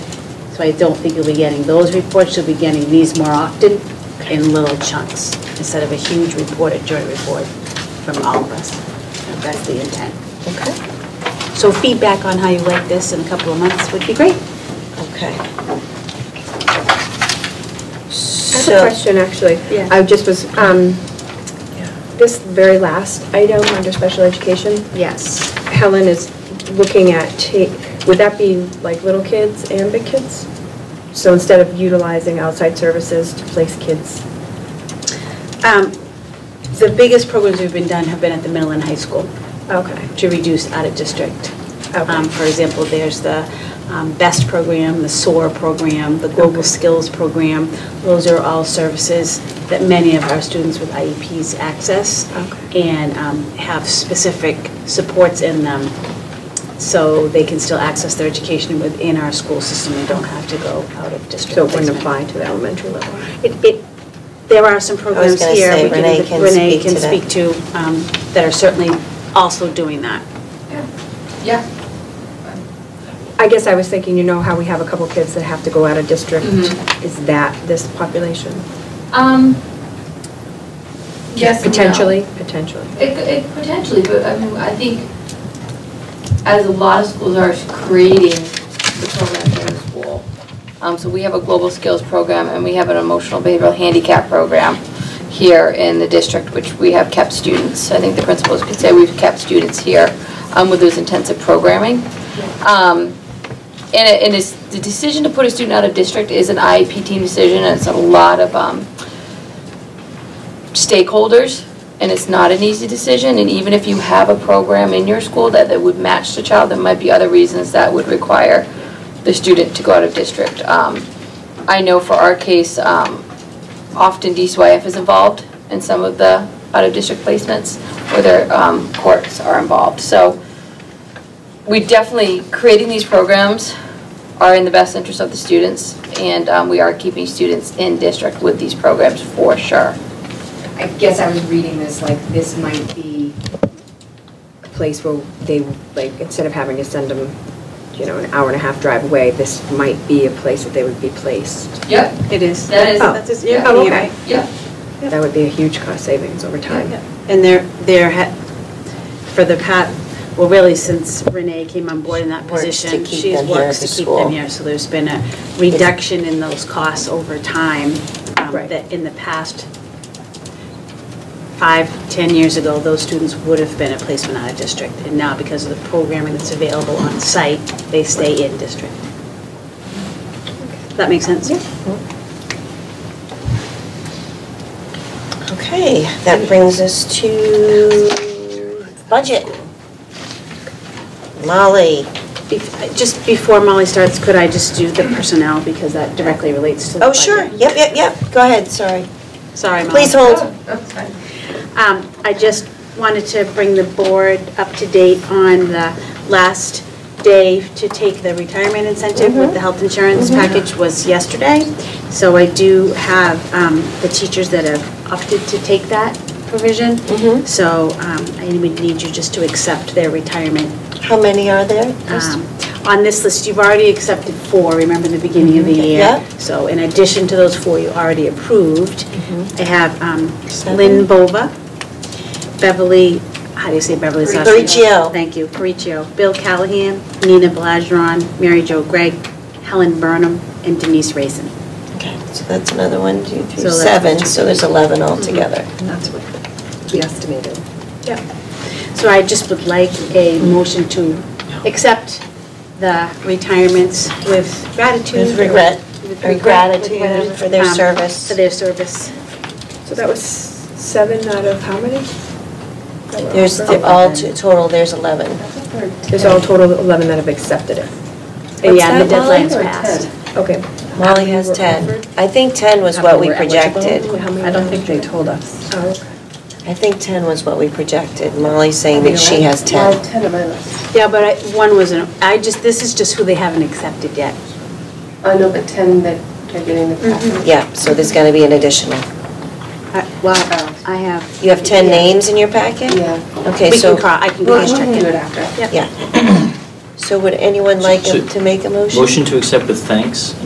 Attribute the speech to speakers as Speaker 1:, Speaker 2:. Speaker 1: So I don't think you'll be getting those reports, you'll be getting these more often in little chunks, instead of a huge report, a joint report from all of us. That's the intent.
Speaker 2: Okay.
Speaker 1: So feedback on how you like this in a couple of months would be great.
Speaker 2: Okay.
Speaker 3: I have a question, actually.
Speaker 1: Yeah.
Speaker 3: I just was, um, this very last item under special education,
Speaker 1: Yes.
Speaker 3: Helen is looking at, ta- would that be like little kids and big kids? So instead of utilizing outside services to place kids?
Speaker 1: Um, The biggest programs we've been done have been at the middle and high school.
Speaker 3: Okay.
Speaker 1: to reduce out-of-district.
Speaker 3: Okay.
Speaker 1: Um, For example, there's the um, BEST program, the SOAR program, the Global Skills program. Those are all services that many of our students with IEPs access
Speaker 3: Okay.
Speaker 1: and um, have specific supports in them, so they can still access their education within our school system and don't have to go out of district.
Speaker 3: So it wouldn't
Speaker 1: placement.
Speaker 3: apply to the elementary level?
Speaker 1: It, it, there are some programs
Speaker 2: gonna
Speaker 1: here.
Speaker 2: say
Speaker 1: we
Speaker 2: Renee
Speaker 1: that
Speaker 2: can
Speaker 1: Renee
Speaker 2: speak
Speaker 1: can
Speaker 2: to that.
Speaker 1: speak to, um, that are certainly also doing that.
Speaker 4: Yeah.
Speaker 3: I guess I was thinking, you know how we have a couple kids that have to go out of district?
Speaker 4: Mhm.
Speaker 3: Is that this population?
Speaker 4: Um, yes and no.
Speaker 3: Potentially? Potentially.
Speaker 4: It, it potentially, but I mean, I think as a lot of schools are creating the programs in the school. Um, so we have a global skills program and we have an emotional behavioral handicap program here in the district, which we have kept students. I think the principals could say we've kept students here, um, with those intensive programming. Um, And it, and it's, the decision to put a student out of district is an IEP team decision, and it's a lot of, um, stakeholders, and it's not an easy decision, and even if you have a program in your school that, that would match the child, there might be other reasons that would require the student to go out of district. Um, I know for our case, um, often DCYF is involved in some of the out-of-district placements, or their um, courts are involved. So we definitely, creating these programs are in the best interest of the students, and um, we are keeping students in district with these programs for sure.
Speaker 5: I guess I was reading this, like, this might be
Speaker 3: a place where they, like, instead of having to send them, you know, an hour and a half drive away, this might be a place that they would be placed.
Speaker 4: Yep,
Speaker 1: It is.
Speaker 4: That is-
Speaker 1: That's just- you're
Speaker 4: yeah.
Speaker 1: being
Speaker 3: Oh, okay.
Speaker 1: right.
Speaker 4: yep.
Speaker 3: That would be a huge cost savings over time.
Speaker 1: And they're, they're, ha- for the pat, well, really, since Renee came on board in that
Speaker 2: Works to
Speaker 1: position,
Speaker 2: keep
Speaker 1: she's
Speaker 2: them here
Speaker 1: works
Speaker 2: at
Speaker 1: to
Speaker 2: the
Speaker 1: keep
Speaker 2: school.
Speaker 1: them here. So there's been a reduction in those costs over time. um,
Speaker 3: Right.
Speaker 1: That in the past, five, ten years ago, those students would have been a placement out of district. And now, because of the programming that's available on site, they stay in district. Does that make sense?
Speaker 2: Okay, that brings us to budget. Molly,
Speaker 1: Bef- Just before Molly starts, could I just do the personnel, because that directly relates to the
Speaker 2: oh,
Speaker 1: budget?
Speaker 2: sure, yep, yep, yep, go ahead, sorry.
Speaker 1: Sorry, Molly.
Speaker 2: Please hold.
Speaker 4: That's fine.
Speaker 1: Um, I just wanted to bring the board up to date on the last day to take the retirement incentive with the
Speaker 2: Mm-hmm.
Speaker 1: health insurance package was yesterday. So I do have um, the teachers that have opted to take that provision.
Speaker 2: Mm-hmm.
Speaker 1: So um, I would need you just to accept their retirement
Speaker 2: How many are there?
Speaker 1: um, On this list, you've already accepted four, remember in the beginning of the year?
Speaker 2: Mm-hmm. Yeah.
Speaker 1: So in addition to those four you already approved, I have um,
Speaker 2: Mm-hmm. Seven.
Speaker 1: Lynn Bova, Beverly, how do you say Beverly's last name?
Speaker 2: Paricchio.
Speaker 1: Thank you, Paricchio, Bill Callahan, Nina Blazron, Mary Jo Gregg, Helen Burnham, and Denise Raisin.
Speaker 2: Okay, so that's another one, two,
Speaker 1: So
Speaker 2: three,
Speaker 1: that's-
Speaker 2: seven, so there's 11 altogether.
Speaker 3: That's what we estimated.
Speaker 1: So I just would like a motion to accept the retirements with gratitude.
Speaker 2: With regret,
Speaker 1: With regret,
Speaker 2: or
Speaker 1: with
Speaker 2: gratitude
Speaker 1: whatever,
Speaker 2: for their
Speaker 1: um,
Speaker 2: service.
Speaker 1: For their service.
Speaker 3: So that was seven out of how many?
Speaker 2: There's the- all, to- total, there's 11.
Speaker 3: There's all total 11 that have accepted it.
Speaker 1: And yeah, the
Speaker 3: What's that, Molly,
Speaker 1: deadline's
Speaker 3: or
Speaker 1: passed.
Speaker 3: Okay.
Speaker 2: Molly has 10. I think 10 was what we projected.
Speaker 3: I don't think they told us. Oh, okay.
Speaker 2: I think 10 was what we projected. Molly's saying that she has 10.
Speaker 1: Yeah, but I- one was, an I just, this is just who they haven't accepted yet.
Speaker 6: I know, but 10 that are getting the package.
Speaker 2: Yeah, so there's going to be an additional.
Speaker 1: I- Well, I have,
Speaker 2: You have 10 names in your packet?
Speaker 6: Yeah.
Speaker 2: Okay,
Speaker 1: we
Speaker 2: so.
Speaker 1: can call, I can
Speaker 6: We'll
Speaker 1: cross check
Speaker 6: do
Speaker 1: it.
Speaker 6: it after.
Speaker 2: Yeah. So would anyone like
Speaker 7: So-
Speaker 2: to make a motion?
Speaker 7: Motion to accept with thanks.